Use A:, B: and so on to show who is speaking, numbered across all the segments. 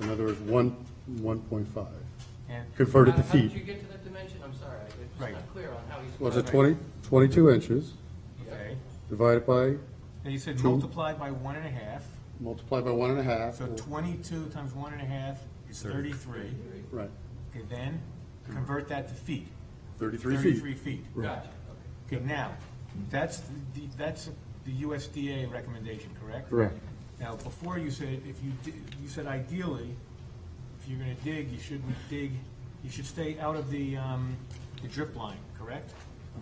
A: In other words, one, one point five,
B: And
A: converted to
C: How- How did you
A: feet.
C: get to that dimension? I'm sorry, I-
B: Right.
C: it's not clear on how he's.
A: Was it 20 22 inches
B: Okay.
A: divided by,
B: Now you said
A: Two.
B: multiplied by one and a half,
A: multiplied by one and a half?
B: so
A: or-
B: twenty-two times one and a half is thirty-three.
A: Right,
B: Okay, then convert that to feet.
A: thirty-three
B: Thirty-three
A: feet.
B: feet.
C: Gotcha,
B: Okay, now, that's the, that's the USDA recommendation, correct?
A: Correct.
B: Now, before you said, if you, di- you said ideally, if you're gonna dig, you shouldn't dig, you should stay out of the, um, the drip line, correct?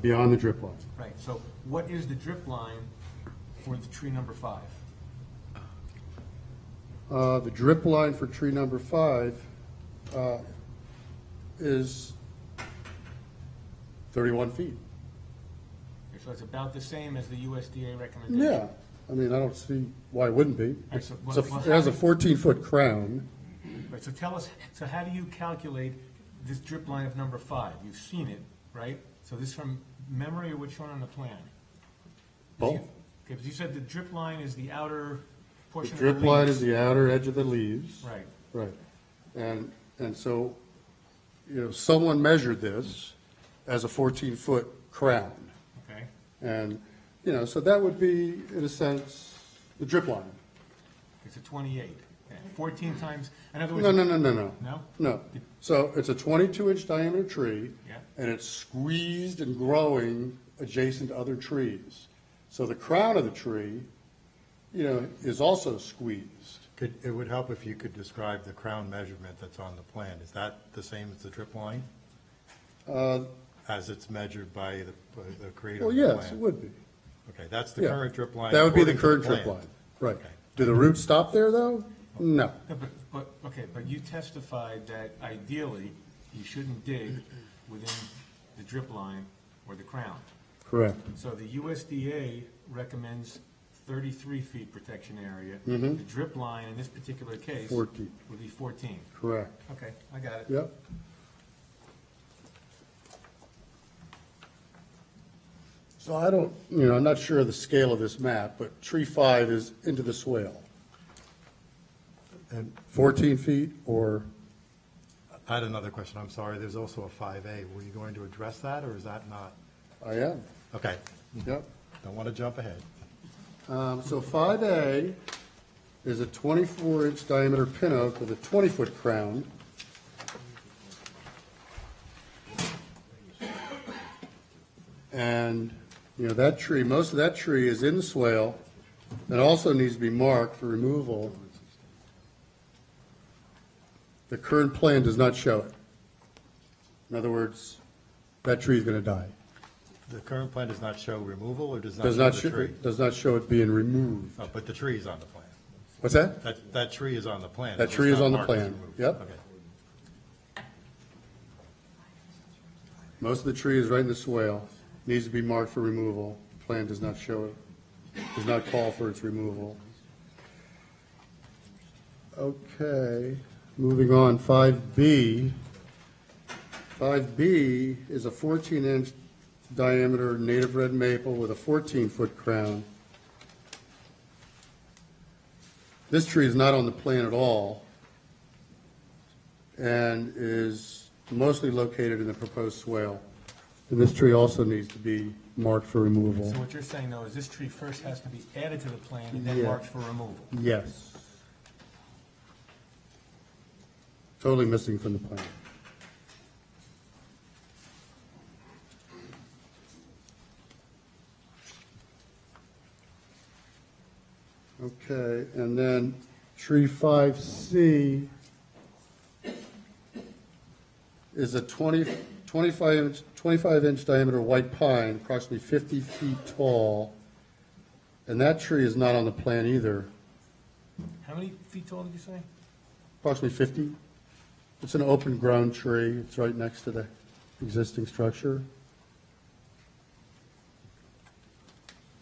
A: Beyond the drip line.
B: Right, so what is the drip line for the tree number five?
A: Uh, the drip line for tree number five, uh, is thirty-one feet.
B: Okay, So it's about the same as the USDA recommendation?
A: Yeah, I mean, I don't see why it wouldn't be.
B: right,
A: It's
B: so
A: a-
B: what-
A: It has a fourteen-foot crown.
B: Right, so tell us, so how do you calculate this drip line of number five? You've seen it, right? So this from memory or what's shown on the plan?
A: Both.
B: Okay, but you said the drip line is the outer
A: The
B: portion of the
A: drip line is
B: leaves.
A: the outer edge of the leaves.
B: Right,
A: Right. And, and so, you know, someone measured this as a 14-foot crown.
B: okay.
A: And, you know, so that would be, in a sense, the drip line.
B: It's a twenty-eight. Okay, Fourteen times, in other words.
A: No, no, no, no, no.
B: No?
A: No. So it's a 22-inch diameter tree.
B: Yeah.
A: And it's squeezed and growing adjacent to other trees. So the crown of the tree, you know, is also squeezed.
D: Could, it would help if you could describe the crown measurement that's on the plan. Is that the same as the drip line? As it's measured by the, by the creator
A: Uh, Well,
D: of the plan?
A: yes, it would be.
D: Okay, that's the
A: Yeah.
D: current drip line.
A: That would be the current
D: according to
A: drip
D: plan.
A: line, right.
D: Okay.
A: Do the roots stop there, though? No.
B: No, But, but, okay, but you testified that ideally, you shouldn't dig within the drip line or the crown.
A: Correct.
B: So the USDA recommends thirty-three feet protection area.
A: Mm-hmm.
B: The drip line in this particular case.
A: 14.
B: Would be fourteen.
A: Correct.
B: Okay, I got it.
A: Yep. So I don't, you know, I'm not sure of the scale of this map, but tree five is into the swale. And 14 feet or,
D: I had another question, I'm sorry, there's also a five A. Were you going to address that, or is that not?
A: I am,
D: Okay,
A: yep.
D: don't want to jump ahead.
A: Um, So 5A is a 24-inch diameter pin oak with a 20-foot crown. And, you know, that tree, most of that tree is in the swale. It also needs to be marked for removal. The current plan does not show it. In other words, that tree is going to die.
D: The current plan does not show removal, or does
A: Does not,
D: not show the
A: sho-
D: tree?
A: does not show it being removed.
D: Oh, But the tree is on the plan.
A: What's that?
D: That, that tree is on the plan.
A: That
D: It's
A: tree is
D: not
A: on the
D: marked as
A: plan.
D: removed.
A: Yep.
D: Okay.
A: Most of the tree is right in the swale, needs to be marked for removal. Plan does not show it, does not call for its removal. Okay, moving on, five B. Five B is a fourteen inch diameter native red maple with a fourteen foot crown. This tree is not on the plan at all and is mostly located in the proposed swale. And this tree also needs to be marked for removal.
B: So what you're saying though is this tree first has to be added to the plan and then
A: Yeah.
B: marked for removal.
A: Yes. Totally missing from the plan. Okay, and then tree five C is a 20 25 inch, twenty-five inch diameter white pine, approximately fifty feet tall. And that tree is not on the plan either.
B: How many feet tall did you say?
A: approximately 50. It's an open ground tree, it's right next to the existing structure.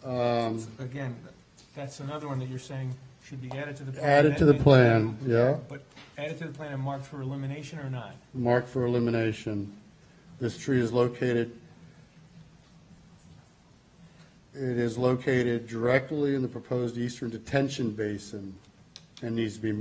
A: Um,
B: Again, that's another one that you're saying should be added to the. plan.
A: Added to the plan, yeah,
B: But added to the plan and marked for elimination or not?
A: marked for elimination. This tree is located, it is located directly in the proposed eastern detention basin and needs to be